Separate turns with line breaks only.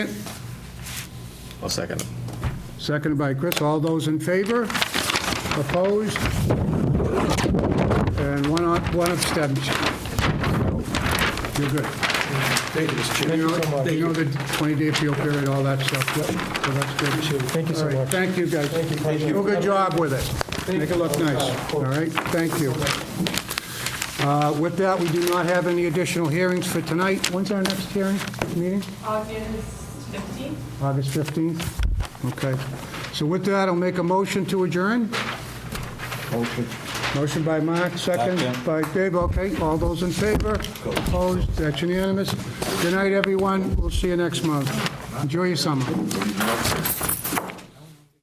I'll second it.
Seconded by Chris. All those in favor? Opposed? And one on- one abstention. You're good.
Thank you, Mr. Chairman.
You know-
Thank
You know
you.
the 20-day appeal period, all that stuff. So that's good.
Appreciate it. Thank you so
All right.
much.
Thank you, guys.
Thank you.
Do a good job with it. Make it look nice. All right? Thank you. Uh, With that, we do not have any additional hearings for tonight. When's our next hearing, meeting?
August 15th.
August 15th? Okay. So with that, I'll make a motion to adjourn. Motion by Mark, second by Dave. Okay, all those in favor? Opposed? That's unanimous. Good night, everyone. We'll see you next month. Enjoy your summer.